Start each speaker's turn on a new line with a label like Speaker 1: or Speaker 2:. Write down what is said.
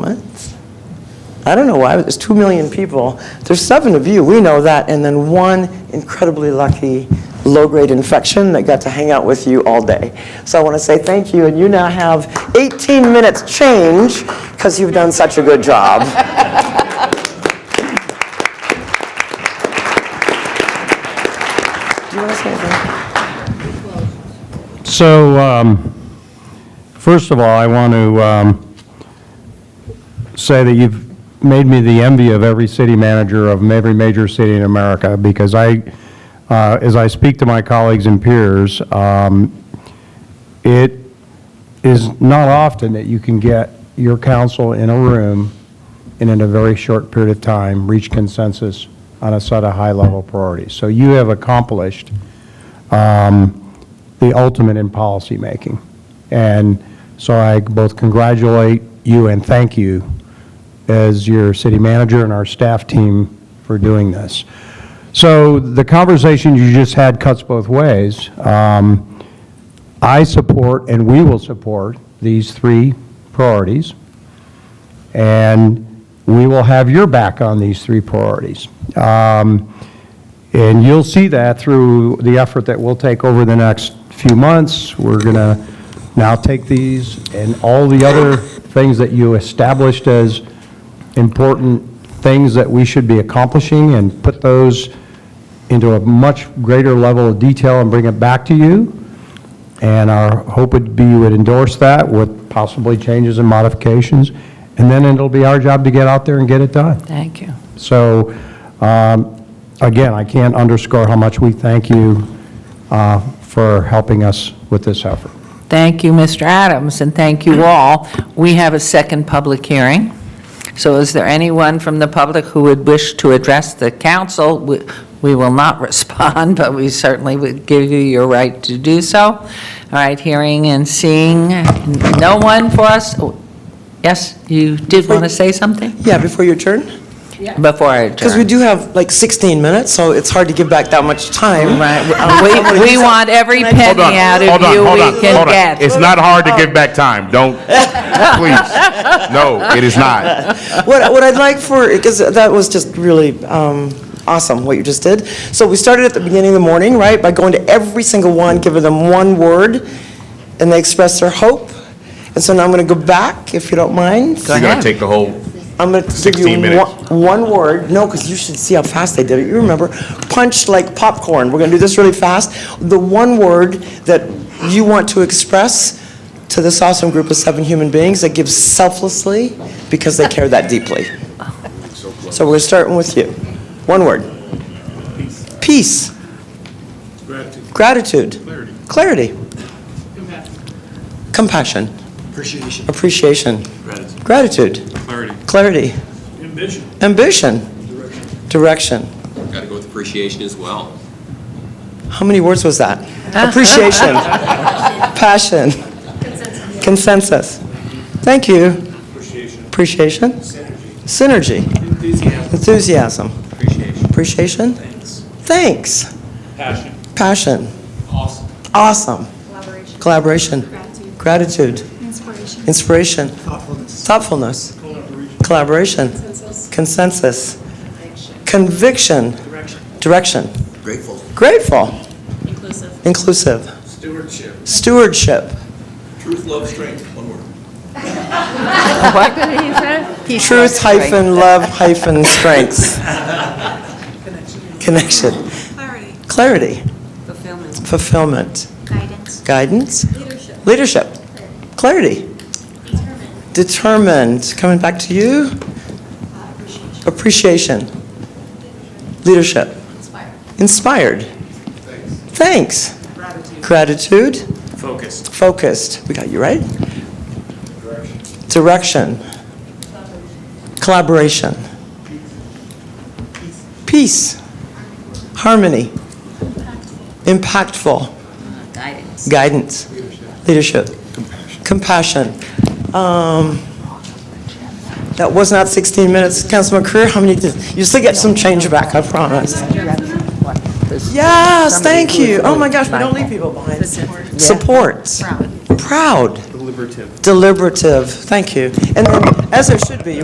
Speaker 1: moments. I don't know why, but there's 2 million people. There's seven of you, we know that, and then one incredibly lucky low-grade infection that got to hang out with you all day. So I want to say thank you, and you now have 18 minutes change because you've done such a good job. Do you want to say anything?
Speaker 2: So, um, first of all, I want to um, say that you've made me the envy of every city manager of every major city in America, because I, uh, as I speak to my colleagues and peers, um, it is not often that you can get your council in a room and in a very short period of time, reach consensus on a set of high-level priorities. So you have accomplished the ultimate in policymaking. And so I both congratulate you and thank you as your city manager and our staff team for doing this. So the conversation you just had cuts both ways. Um, I support, and we will support, these three priorities, and we will have your back on these three priorities. Um, and you'll see that through the effort that we'll take over the next few months. We're going to now take these and all the other things that you established as important things that we should be accomplishing and put those into a much greater level of detail and bring it back to you. And our hope would be you would endorse that with possibly changes and modifications. And then it'll be our job to get out there and get it done.
Speaker 3: Thank you.
Speaker 2: So, um, again, I can't underscore how much we thank you uh, for helping us with this effort.
Speaker 3: Thank you, Mr. Adams, and thank you all. We have a second public hearing. So is there anyone from the public who would wish to address the council? We we will not respond, but we certainly would give you your right to do so. All right, hearing and seeing no one for us. Oh, Yes, you did want to say something
Speaker 1: Yeah, before your turn?
Speaker 3: before I
Speaker 1: Because we
Speaker 3: adjourn?
Speaker 1: do have like 16 minutes, so it's hard to give back that much time.
Speaker 3: Right, we- we want every
Speaker 4: Hold on,
Speaker 3: penny out
Speaker 4: hold
Speaker 3: of
Speaker 4: on,
Speaker 3: you
Speaker 4: hold on,
Speaker 3: we can
Speaker 4: hold on.
Speaker 3: get.
Speaker 4: It's not hard
Speaker 3: Oh.
Speaker 4: to give back time. Don't, please. No, it is not.
Speaker 1: What, what I'd like for, because that was just really um, awesome, what you just did. So we started at the beginning of the morning, right, by going to every single one, giving them one word, and they expressed their hope. And so now I'm going to go back, if you don't mind.
Speaker 4: You're going to take the whole,
Speaker 1: I'm going to give
Speaker 4: 16
Speaker 1: you
Speaker 4: minutes.
Speaker 1: one, one word, no, because you should see how fast they did it, you remember, punch like popcorn, we're going to do this really fast. The one word that you want to express to this awesome group of seven human beings that gives selflessly because they care that deeply. So we're starting with you. One word. Peace. Gratitude. Clarity. Clarity. Compassion.
Speaker 5: Appreciation.
Speaker 1: Appreciation.
Speaker 5: Gratitude.
Speaker 1: Gratitude.
Speaker 5: Clarity.
Speaker 1: Clarity.
Speaker 5: Ambition.
Speaker 1: Ambition. Direction.
Speaker 6: Got to go with appreciation as well.
Speaker 1: How many words was that?
Speaker 7: Ah.
Speaker 1: Appreciation. Passion. Consensus. Thank you.
Speaker 5: Appreciation.
Speaker 1: Appreciation.
Speaker 5: Synergy.
Speaker 1: Synergy.
Speaker 5: Enthusiasm.
Speaker 1: Enthusiasm.
Speaker 5: Appreciation.
Speaker 1: Appreciation.
Speaker 5: Thanks.
Speaker 1: Thanks.
Speaker 5: Passion.
Speaker 1: Passion.
Speaker 5: Awesome.
Speaker 1: Awesome.
Speaker 7: Collaboration.
Speaker 1: Collaboration.
Speaker 7: Gratitude.
Speaker 1: Gratitude.
Speaker 7: Inspiration.
Speaker 1: Inspiration. Thoughtfulness. Collaboration.
Speaker 7: Consensus.
Speaker 1: Consensus. Conviction.
Speaker 5: Direction.
Speaker 1: Direction.
Speaker 5: Grateful.
Speaker 1: Grateful.
Speaker 7: Inclusive.
Speaker 1: Inclusive.
Speaker 5: Stewardship.
Speaker 1: Stewardship.
Speaker 5: Truth, love, strength. One word.
Speaker 1: Truth hyphen love hyphen strengths. Connection.
Speaker 7: Clarity.
Speaker 1: Clarity.
Speaker 7: Fulfillment.
Speaker 1: Fulfillment.
Speaker 7: Guidance.
Speaker 1: Guidance.
Speaker 7: Leadership.
Speaker 1: Leadership. Clarity. Determined. Coming back to you. Appreciation. Leadership. Inspired. Thanks. Gratitude.
Speaker 5: Focused.
Speaker 1: Focused. We got you right? Direction. Collaboration. Peace. Harmony. Impactful. Guidance. Leadership. Compassion. Um, That was not 16 minutes. Councilman Creer, how many, did- you still get some change back, I promise. Yes, thank you. Oh, my gosh, we don't leave people behind. Support. Proud.
Speaker 8: deliberative.
Speaker 1: deliberative, thank you. And then, as it should be,